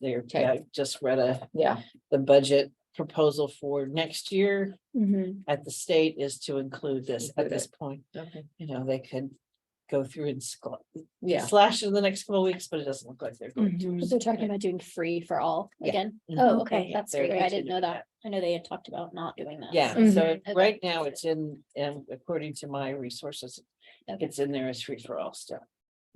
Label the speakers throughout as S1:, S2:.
S1: there.
S2: Okay.
S1: I just read a,
S2: Yeah.
S1: the budget proposal for next year
S2: Mhm.
S1: at the state is to include this at
S2: Include
S1: this point.
S2: Okay.
S1: You know, they could go through and sc-
S2: Yeah.
S1: slash in the next couple of weeks, but it doesn't look like they're
S3: Mm.
S1: going to.
S4: But They're talking about doing free for all
S1: Yeah.
S4: again.
S1: Mhm.
S4: Oh,
S2: Okay.
S4: okay,
S1: Yeah,
S4: that's
S1: they're
S4: great. I
S1: going to
S4: didn't
S1: do
S4: know
S1: that.
S4: that. I know they had talked about not doing that.
S1: Yeah,
S3: Mm-hmm.
S2: Mhm.
S1: so
S4: Okay.
S1: right now it's in, and according to my resources,
S4: Okay.
S1: it's in there as free for all still.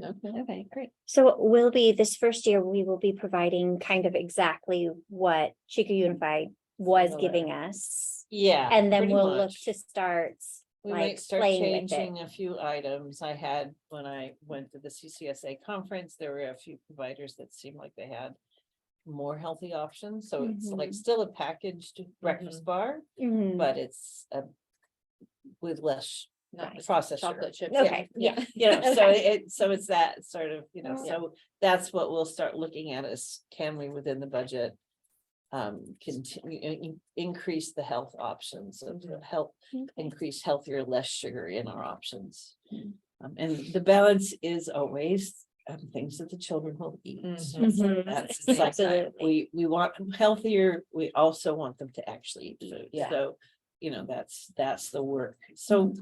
S2: Okay.
S4: Okay, great.
S3: So it will be, this first year, we will be providing kind of exactly what Chico Unified was
S1: Mm-hmm. Similar.
S3: giving us.
S1: Yeah.
S3: And then
S1: pretty
S3: we'll look
S1: much.
S3: to start,
S1: We
S3: like,
S1: might start
S3: playing with it.
S1: changing a few items I had when I went to the CCSA conference, there were a few providers that seemed like they had. More healthy options, so it's like
S3: Mm-hmm.
S4: Mhm.
S1: still a packaged breakfast bar,
S3: Mhm.
S1: but it's a. With less
S2: Not the
S1: processed sugar.
S2: Chocolate chip.
S3: okay, yeah,
S1: You know, so
S3: Okay.
S1: it, so it's that sort of, you know,
S2: Yeah.
S1: so that's what we'll start looking at is can we within the budget? Um, continue, in- in- increase the health options of
S3: Mm-hmm.
S1: the health, increase healthier, less sugar in our options. Um, and the balance is always um, things that the children will eat.
S4: Mm.
S1: So
S2: Mhm.
S3: Mhm.
S1: That's it's like that.
S3: Absolutely.
S1: we, we want them healthier, we also want them to actually eat food.
S2: Yeah.
S1: So, you know, that's, that's the work. So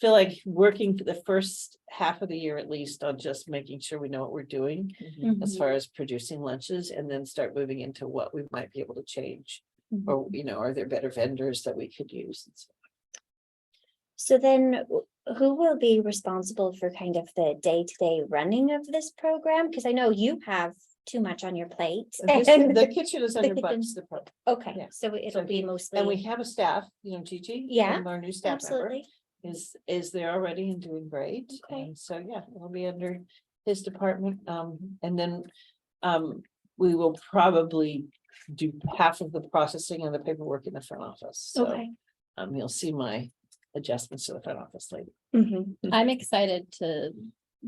S1: feel like working for the first half of the year at least on just making sure we know what we're doing as
S3: Mm-hmm.
S4: Mhm.
S1: far as producing lunches and then start moving into what we might be able to change. Or, you know, are there better vendors that we could use? and so
S3: So then wh- who will be responsible for kind of the day-to-day running of this program? Because I know you have too much on your plate.
S1: This- The kitchen is under
S3: kitchen.
S1: Bucks, the pro- yeah.
S3: Okay, so
S1: So
S3: it'll be
S1: he- and we
S3: mostly,
S1: have a staff, you know, Gigi.
S3: Yeah,
S1: um, Our new staff member
S3: absolutely.
S1: is, is there already and doing great.
S3: Okay.
S1: And so, yeah, we'll be under his department. Um, and then, um, we will probably do half of the processing and the paperwork in the front office. So,
S3: Okay.
S1: um, you'll see my adjustments to the front office later. Mm-hmm.
S3: Mhm.
S4: I'm excited to,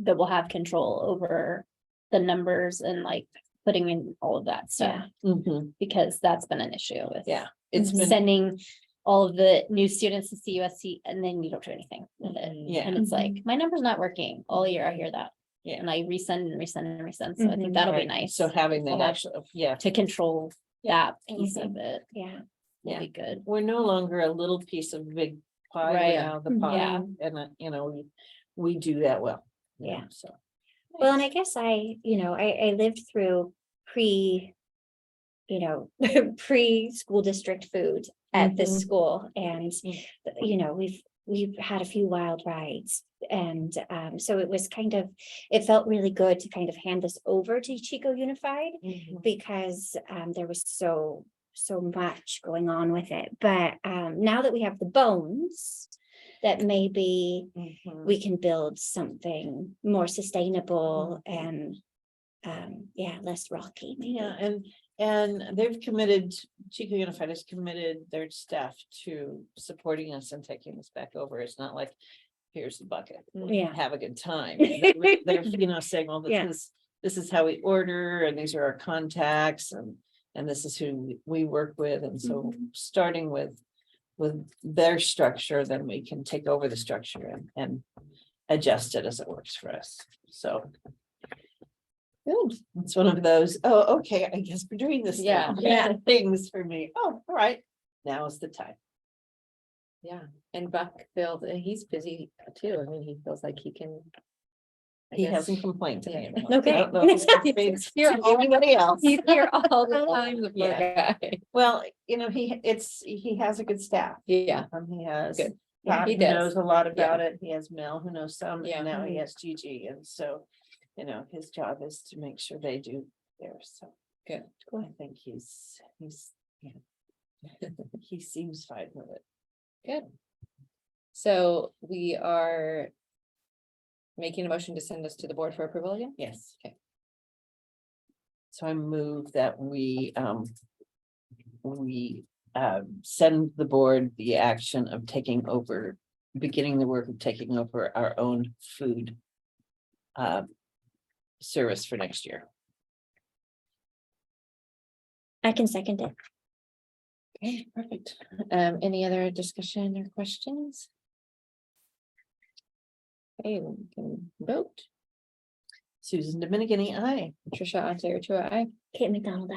S4: that we'll have control over the numbers and like putting in all of that stuff,
S3: Yeah.
S4: because that's been an issue with.
S1: Mm-hmm. Yeah, it's been,
S4: Sending all of the new students to CUSC and then you don't do anything with it.
S2: Mm-hmm.
S1: yeah.
S4: And it's like, my number's not working. All year I hear that.
S1: Yeah.
S4: And I resend and resend and resend. So I
S2: Mm-hmm.
S4: think
S3: Mhm.
S4: that'll be
S1: right.
S4: nice
S1: So having that
S4: Okay.
S1: actually, yeah,
S4: to control that piece of it.
S3: Yeah.
S4: will
S1: Yeah.
S4: Be good.
S1: we're no longer a little piece of big pie. we're
S4: Right.
S1: now
S3: Mm-hmm.
S1: the pie.
S4: Yeah.
S1: And, uh, you know, we, we do that well. you know,
S3: Yeah.
S1: So.
S3: Well, and I guess I, you know, I, I lived through pre, you know, pre-school district food at
S1: Mhm.
S3: this school and,
S1: Mm.
S3: you know, we've, we've had a few wild rides. And um, so it was kind of, it felt really good to kind of hand this over to Chico Unified
S1: Mm-hmm.
S3: because um, there was so, so much going on with it. But um, now that we have the bones, that maybe
S1: Mhm.
S3: we can build something more sustainable and um, yeah, less rocky. maybe.
S1: Yeah, and, and they've committed, Chico Unified has committed their staff to supporting us and taking us back over. It's not like, here's the bucket.
S3: Yeah.
S1: Have a good time. They're, they're, you know, saying, well,
S3: Yeah.
S1: this is, this is how we order and these are our contacts and, and this is who we- we work with. And so
S3: Mm-hmm.
S1: starting with, with their structure, then we can take over the structure and, and adjust it as it works for us. So. Good. It's one of those, oh, okay, I guess we're doing this. now."
S2: Yeah.
S1: Things for me. Oh, all right. Now is the time.
S2: Yeah, and Buck feels, and he's busy too. I mean, he feels like he can. I
S1: He
S2: guess-
S1: hasn't complained to me.
S2: Yeah.
S1: about it. I
S3: Okay.
S1: don't know if it's complained to Anybody else?
S2: He's here all the
S3: Oh,
S2: time, the poor guy.
S1: Well, you know, he, it's, he has a good staff.
S2: Yeah,
S1: Um, he has.
S2: Good.
S4: Yeah,
S1: Pat
S2: he
S1: who
S2: does.
S1: Knows a lot about
S2: Yeah.
S1: it. He has Mel who knows some,
S2: Yeah. Mm-hmm.
S1: and now he
S3: Mhm.
S1: has Gigi, and so, you know, his job is to make sure they do theirs, so.
S2: Good.
S1: I think he's, he's, yeah. He seems fine with it.
S2: so we are. Making a motion to send this to the board for approval again?
S1: Yes.
S2: Okay.
S1: So I move that we, um. We, um, send the board the action of taking over, beginning the work of taking over our own food. Uh. Service for next year.
S3: I can second it.
S2: Okay, perfect. Um, any other discussion or questions? Okay, we can vote.
S1: Susan Dominican, I.
S2: Trisha, Ontario, two, I.
S3: Kate McDonald,